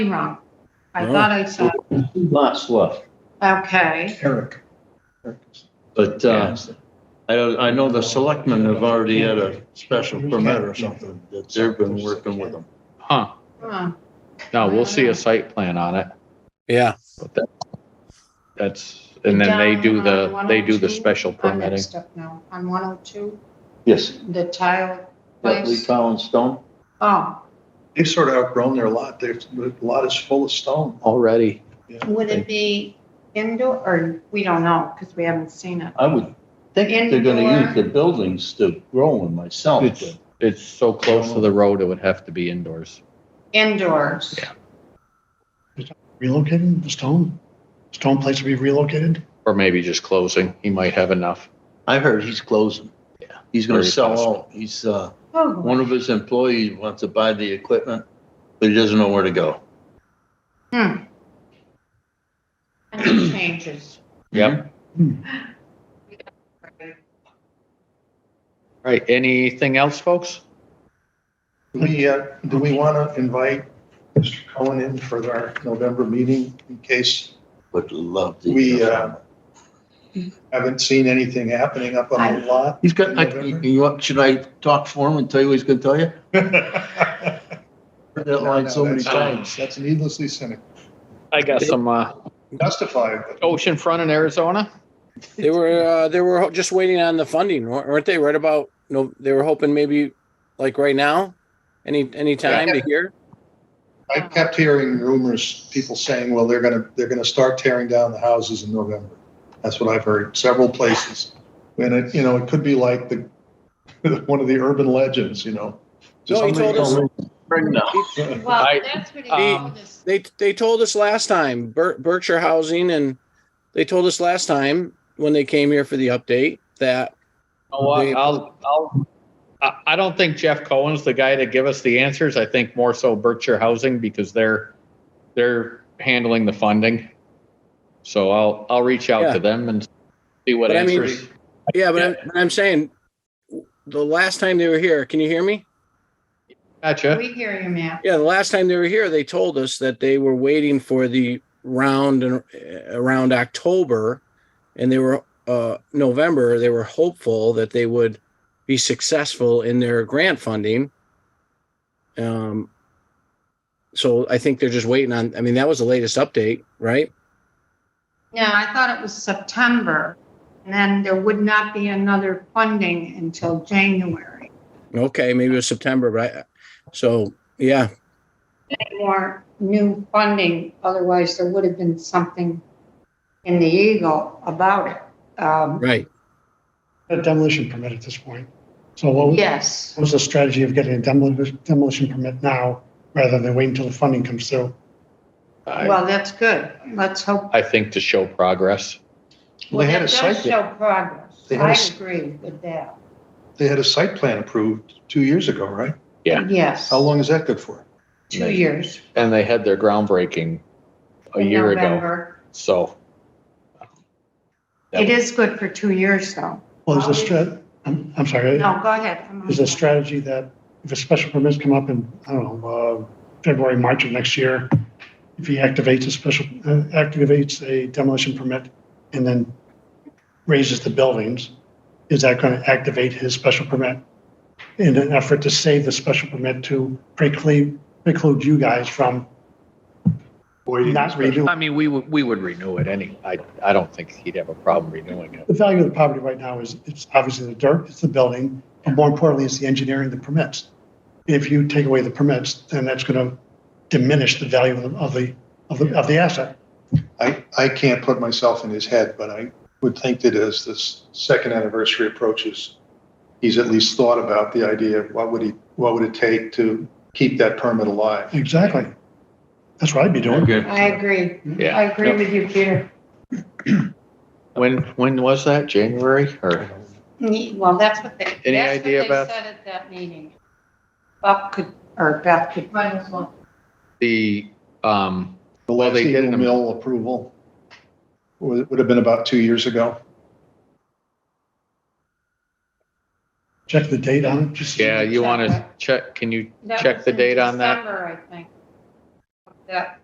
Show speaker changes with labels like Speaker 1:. Speaker 1: wrong. I
Speaker 2: No.
Speaker 1: thought I saw,
Speaker 3: two lots left.
Speaker 1: okay,
Speaker 4: Eric.
Speaker 2: But uh, I, don't- I know the selectmen have already had a special permit or something. that They've been working with them.
Speaker 5: Huh,
Speaker 1: huh,
Speaker 5: no, we'll see a site plan on it,
Speaker 6: Yeah,
Speaker 5: but that, that's, and then they do the, they do the special
Speaker 1: I'm
Speaker 5: permitting.
Speaker 1: oh mixed up now, on one oh two,
Speaker 3: Yes.
Speaker 1: the tile
Speaker 3: Lee
Speaker 1: place,
Speaker 3: Collin Stone.
Speaker 1: oh,
Speaker 2: They've sort of outgrown their lot. Their lot is full of stone.
Speaker 5: Already,
Speaker 1: would it be indoor, or, we don't know, because we haven't seen it.
Speaker 3: I would think they're gonna use the buildings to grow in
Speaker 6: Oh.
Speaker 3: myself.
Speaker 5: it's, it's so close to the road, it would have to be indoors.
Speaker 1: Indoors,
Speaker 4: Relocating the stone? Stone place to be relocated?
Speaker 5: Or maybe just closing, he might have enough.
Speaker 2: I heard he's closing.
Speaker 5: Yeah.
Speaker 2: He's gonna
Speaker 5: Very
Speaker 2: sell
Speaker 5: possible.
Speaker 2: all, he's, uh,
Speaker 1: oh,
Speaker 2: one of his employees wants to buy the equipment, but he doesn't know where to go.
Speaker 1: and it changes.
Speaker 5: Yep. Right, anything else, folks?
Speaker 7: Do we, uh, do we want to invite Mr. Cohen in for our November meeting in case
Speaker 2: Would love to.
Speaker 7: We, uh, haven't seen anything happening up on the lot?
Speaker 2: He's got, I- you you want, should I talk for him and tell you what he's gonna tell you? Heard that line so many
Speaker 7: No, no, that's-
Speaker 2: times.
Speaker 7: That's needlessly cynical.
Speaker 5: I got some, uh,
Speaker 7: Justified, but
Speaker 5: ocean front in Arizona,
Speaker 6: they were, uh, they were just waiting on the funding, wa- weren't they? Right about, no, they were hoping maybe like right now, any, any time to hear?
Speaker 7: I kept hearing rumors, people saying, well, they're gonna, they're gonna start tearing down the houses in November. That's what I've heard, several places. And it, you know, it could be like the, one of the urban legends, you know?
Speaker 6: No, he told us,
Speaker 1: Well,
Speaker 5: I-
Speaker 1: that's what he
Speaker 5: um,
Speaker 1: told us,
Speaker 6: they, they told us last time, Ber- Berkshire Housing and they told us last time when they came here for the update that,
Speaker 5: Oh, I-
Speaker 6: They-
Speaker 5: I'll, I'll, I, I don't think Jeff Cohen's the guy to give us the answers. I think more so Berkshire Housing because they're, they're handling the funding. So I'll, I'll reach out
Speaker 6: Yeah.
Speaker 5: to them and see what
Speaker 6: But I mean-
Speaker 5: answers.
Speaker 6: yeah, but I'm, but I'm saying the last time they were here, can you hear me?
Speaker 5: Gotcha.
Speaker 1: we hear you, Matt,
Speaker 6: Yeah, the last time they were here, they told us that they were waiting for the round and uh, around October, and they were uh, November. They were hopeful that they would be successful in their grant funding. Um, so I think they're just waiting on. I mean, that was the latest update, right?
Speaker 1: yeah, I thought it was September, and then there would not be another funding until January.
Speaker 6: Okay, maybe it was September, right? So yeah,
Speaker 1: more new funding, otherwise there would have been something in the Eagle about it. Um,
Speaker 6: right.
Speaker 4: A demolition permit at this point. So what was-
Speaker 1: Yes,
Speaker 4: what was the strategy of getting a demolition, demolition permit now rather than waiting until the funding comes through?
Speaker 5: I,
Speaker 1: well, that's good. Let's hope.
Speaker 5: I think to show progress.
Speaker 7: Well, they had
Speaker 1: Well,
Speaker 7: a
Speaker 1: that
Speaker 7: site
Speaker 1: does
Speaker 7: there.
Speaker 1: Show progress.
Speaker 7: They had a
Speaker 1: I
Speaker 7: s-
Speaker 1: agree with that.
Speaker 7: They had a site plan approved two years ago, right?
Speaker 5: Yeah.
Speaker 1: Yes,
Speaker 7: How long is that good for?
Speaker 1: two years.
Speaker 5: And they had their groundbreaking a
Speaker 1: in
Speaker 5: year ago.
Speaker 1: November.
Speaker 5: So
Speaker 1: It is good for two years though.
Speaker 4: Well, is the strat, I'm, I'm sorry.
Speaker 1: No, go ahead. I'm-
Speaker 4: Is the strategy that if a special permit's come up in, I don't know, uh, February, March of next year, if he activates a special, uh, activates a demolition permit and then raises the buildings, is that going to activate his special permit in an effort to save the special permit to preclude, preclude you guys from not renewing?
Speaker 5: I mean, we would, we would renew it any, I, I don't think he'd have a problem renewing it.
Speaker 4: The value of the property right now is, it's obviously the dirt, it's the building, but more importantly, it's the engineering, the permits. If you take away the permits, then that's gonna diminish the value of the, of the, of the, of the asset.
Speaker 7: I, I can't put myself in his head, but I would think that as this second anniversary approaches, he's at least thought about the idea of what would he, what would it take to keep that permit alive?
Speaker 4: Exactly. That's what I'd be doing.
Speaker 1: I agree.
Speaker 5: Yeah.
Speaker 1: I agree with you, Peter.
Speaker 5: When, when was that? January or?
Speaker 1: Ne- Well, that's what they,
Speaker 5: Any
Speaker 1: that's what
Speaker 5: idea
Speaker 1: they
Speaker 5: about-
Speaker 1: said at that meeting. Bob could, or Beth could. Might as well.
Speaker 5: the, um,
Speaker 7: The
Speaker 5: Well,
Speaker 7: last
Speaker 5: they did
Speaker 7: Eagle
Speaker 5: them-
Speaker 7: Mill approval would, would have been about two years ago.
Speaker 4: Check the date on it, just.
Speaker 5: yeah, you
Speaker 1: Check
Speaker 5: want to
Speaker 1: that.
Speaker 5: check, can you
Speaker 1: That
Speaker 5: check
Speaker 1: was
Speaker 5: the
Speaker 1: in
Speaker 5: date on that?
Speaker 1: December, I think. that